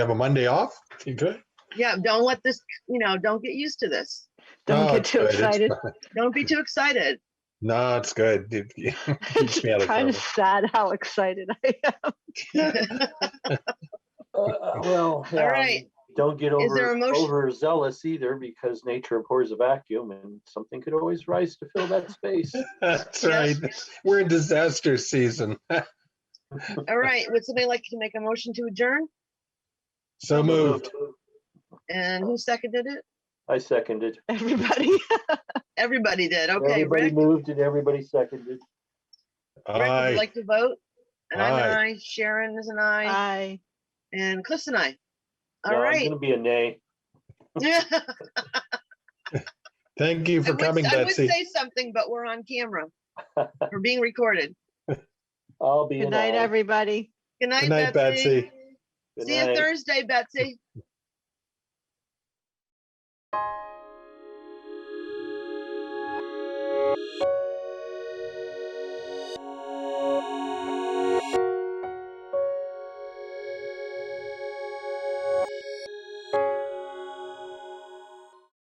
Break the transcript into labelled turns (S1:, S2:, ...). S1: Have a Monday off? You good?
S2: Yeah, don't let this, you know, don't get used to this.
S3: Don't
S1: Oh,
S3: get too
S1: it's good. It's
S3: excited.
S1: fine.
S2: Don't be too excited.
S1: No, it's good. It- it Keeps me out
S3: It's
S1: of
S3: kind
S1: trouble.
S3: of sad how excited I am.
S4: Uh, Well,
S2: All
S4: um,
S2: right.
S4: Don't get
S2: Is there a
S4: over,
S2: motion?
S4: overzealous either because nature abhors a vacuum and something could always rise to fill that space.
S1: That's right. We're in disaster season.
S2: All right, would somebody like to make a motion to adjourn?
S1: So moved.
S2: And who seconded it?
S4: I seconded.
S3: Everybody,
S2: Everybody did. Okay,
S4: Everybody
S2: Rick,
S4: moved and everybody seconded.
S2: Rick would you
S1: Aye.
S2: like to vote. And I'm an
S1: Aye.
S2: aye, Sharon is an aye,
S3: I
S2: and Cliff's an aye.
S4: No,
S2: All
S4: I'm
S2: right.
S4: Gonna be a nay.
S1: Thank you
S2: I
S1: for
S2: would-
S1: coming,
S2: I would
S1: Betsy.
S2: say something, but we're on camera. We're being recorded.
S4: I'll be
S3: Good
S4: an
S3: night,
S4: aye.
S3: everybody.
S1: Good
S2: Good night,
S1: night,
S2: Betsy.
S1: Betsy.
S4: Good
S2: See you
S4: night.
S2: Thursday, Betsy.